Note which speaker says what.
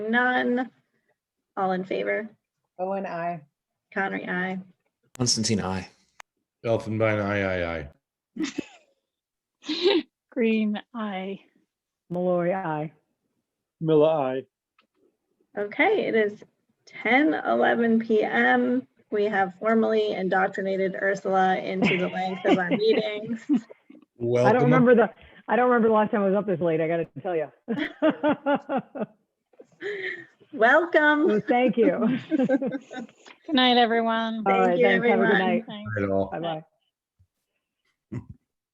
Speaker 1: None. All in favor?
Speaker 2: Owen, I.
Speaker 1: Conry, aye.
Speaker 3: Constantine, I.
Speaker 4: Elfenbein, aye, aye, aye.
Speaker 5: Green, I.
Speaker 2: Malloy, I.
Speaker 6: Miller, I.
Speaker 1: Okay, it is 10, 11 PM. We have formally indoctrinated Ursula into the length of our meetings.
Speaker 4: Welcome.
Speaker 6: I don't
Speaker 4: ab-
Speaker 6: remember the, I don't remember the last time I was up this late, I gotta tell you.
Speaker 1: Welcome.
Speaker 6: Thank you.
Speaker 5: Good night, everyone.
Speaker 6: All
Speaker 1: Thank
Speaker 6: right,
Speaker 1: you,
Speaker 6: thanks. Have a good
Speaker 1: everyone.
Speaker 6: night.
Speaker 5: Thanks.
Speaker 4: At all.
Speaker 6: Bye-bye.